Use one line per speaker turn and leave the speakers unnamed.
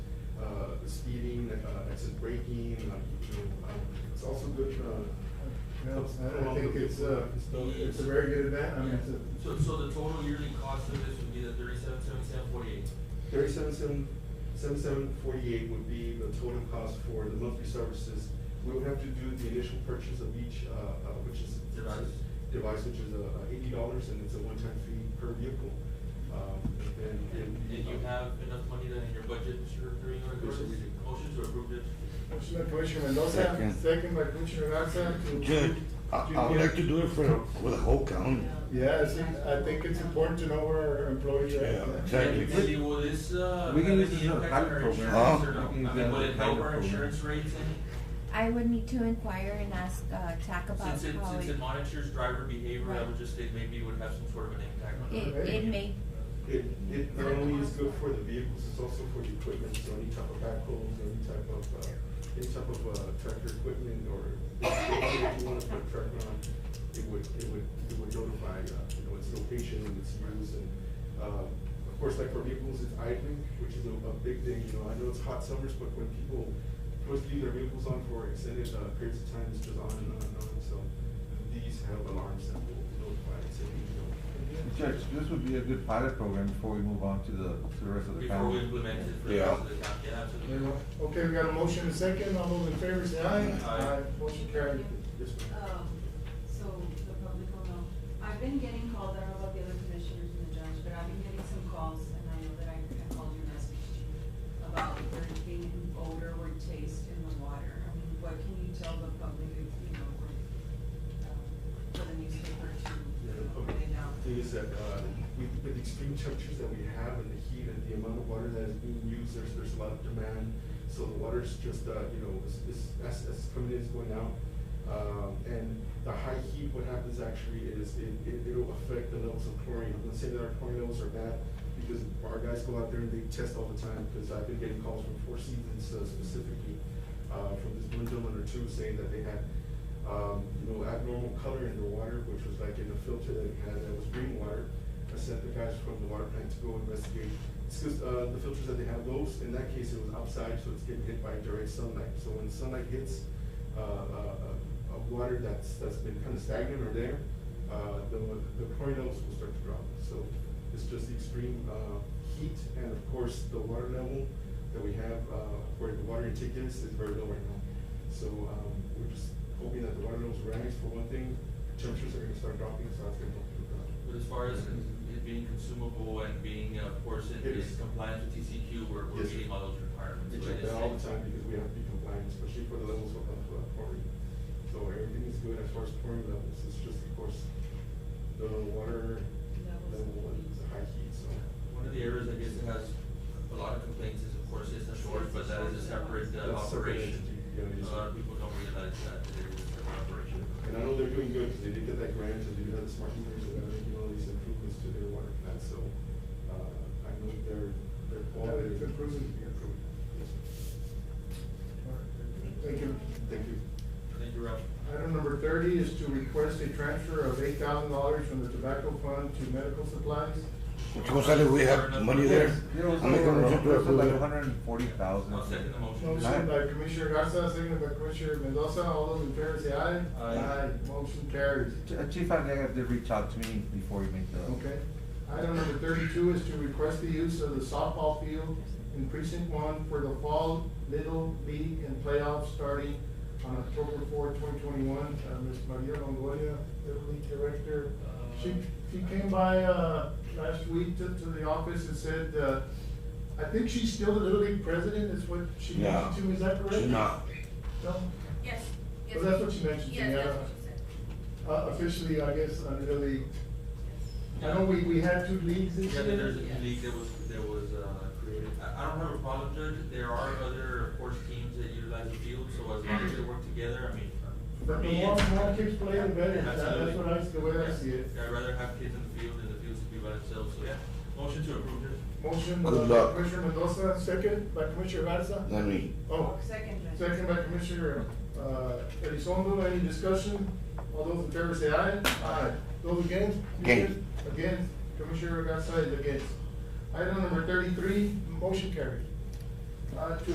Uh, acid uh, braking, like, you know, um, it's also good for, uh,
Well, I- I think it's uh, a, it's a very good event, I mean, it's a,
So, so the total yearly cost of this would be the thirty-seven, seventy-seven, forty-eight?
thirty-seven, seven, seven, seven forty-eight would be the total cost for the monthly services. We would have to do the initial purchase of each, uh, uh, which is.
Device.
Device, which is, uh, eighty dollars, and it's a one-time fee per vehicle. Um, and then.
And, and you have enough money then in your budget, Mr. Carino, to
Yes,
do
we
this?
do.
Motion to approve this?
motion by Commissioner Mendoza,
Second.
second by Commissioner Garza to.
Judge, I, I would like to do it for, for the whole county.
Yeah, I think, I think it's important to know where our employees are
Yeah,
at.
exactly.
And Andy, will this, uh,
We
have
can use
any
this as a
impact on
pilot
our insurance or
program.
Huh?
no?
We can
I mean,
use that
will
as
it
a
help
pilot
our
program.
insurance rates any?
I would need to inquire and ask, uh, TAC about
Since it,
how
since it
it,
monitors driver behavior, I
Right.
would just say maybe it would have some sort of an impact on.
it,
our-
it may,
It, it not only is good for the vehicles, it's also for the equipment, so any type of backhoes, any type of, uh, any type of, uh, tractor equipment or if you wanna put a tractor on, it would, it would, it would notify, uh, you know, its location and its use and, uh, of course, like for vehicles, it's idling, which is a, a big thing, you know, I know it's hot summers, but when people supposed to leave their vehicles on for extended, uh, periods of time, it's just on and on and on, so these have alarms that will notify, and say, you know,
Judge, this would be a good pilot program before we move on to the, to the rest of the
Before we
county.
implement it for the
Yeah.
rest of the county, yeah, absolutely.
Okay, we got a motion and second, all those in favor say aye.
Aye.
Motion carried.
this one.
Um, so the public will know. I've been getting calls, I don't know about the other commissioners and the judge, but I've been getting some calls and I know that I I called your message to you about there being an odor or taste in the water. I mean, what can you tell the public, you know, for, um, for the newspaper to
Yeah, the
put
public-
it out?
thing is that, uh, with, with the extreme temperatures that we have and the heat and the amount of water that is being used, there's, there's a lot of demand. So the water's just, uh, you know, is, is, as, as coming in, is going out. Um, and the high heat, what happens actually is it, it, it'll affect the levels of chlorine. I'm not saying that our chlorine levels are bad, because our guys go out there and they test all the time, because I've been getting calls from Four Seasons uh, specifically, uh, from this one gentleman or two saying that they had um, you know, abnormal color in the water, which was like in a filter that it had, that was green water. I sent the guys from the water plant to go investigate. It's because, uh, the filters that they have, those, in that case, it was outside, so it's getting hit by direct sunlight. So when sunlight hits, uh, uh, uh, uh, water that's, that's been kind of stagnant or there, uh, the, the chlorine levels will start to drop. So it's just the extreme, uh, heat and of course, the water level that we have, uh, where the water intake is, is very low right now. So, um, we're just hoping that the water levels rise for one thing, temperatures are gonna start dropping, so that's gonna help with that.
But as far as it being consumable and being, uh, of course, in
It
in
is.
compliance with TCQ, we're, we're
Yes.
meeting all those requirements.
We
so
check
it is
that all the
safe.
time because we have to be compliant, especially for the levels of, of uh, chlorine. So everything is good as far as chlorine levels, it's just, of course, the water
Levels.
level and the high heat, so.
One of the areas, I guess, that has a lot of complaints is, of course, is the shores, but that is a separate uh,
That's a separate
operation.
entity, yeah, it is.
A lot of people don't realize that it is a separate operation.
And I know they're doing good, because they did get that grant, and they do have the smart meters, and they're making all these improvements to their water plant, so, uh, I know their, their quality.
it's improving.
Improving. Yes.
Thank you.
Thank you.
Thank you, Ralph.
Item number thirty is to request a transfer of eight thousand dollars from the tobacco fund to medical supplies.
Mr. Gonzalez, we have money there.
There was
I make a motion to
over-
approve
like
it.
hundred and forty thousand.
I'll second the motion.
Motion by Commissioner Garza, second by Commissioner Mendoza, all those in favor say aye.
Aye.
Motion carries.
Chief Arriaga did reach out to me before he made the.
Okay. Item number thirty-two is to request the use of the softball field in precinct one for the fall Little League and playoffs starting on October fourth, twenty twenty-one. Uh, Ms. Maria Longoria, Little League Director. She, she came by, uh, last week to, to the office and said, uh, I think she's still the Little League president, is what she
No.
mentioned to, me. is that correct?
She's not.
No?
Yes. yes.
Well, that's what you mentioned to me.
Yes,
I
that's
don't-
what you said.
Uh, officially, I guess, under the league. I
Yeah.
know we, we had two leagues this
Yeah,
year.
there's a league that was, that was, uh, created. I, I don't have a problem, Judge. There are other, of course, teams that utilize the field, so as long as they work together, I mean, for
But the
me.
more,
it's-
more kids play, the better, That-
Absolutely.
that's what I, the way I see it.
Yeah, I'd rather have kids in the field than the fields to be by themselves, so yeah. Motion to approve this.
Motion uh,
Good
by
luck.
Commissioner Mendoza, second by Commissioner Garza.
Not me.
Oh,
Second. Judge.
second by Commissioner, uh, Elizondo, any discussion? All those in favor say aye. Aye. Those against?
Against.
Against, Commissioner Garza is against. Item number thirty-three, motion carried. Uh, to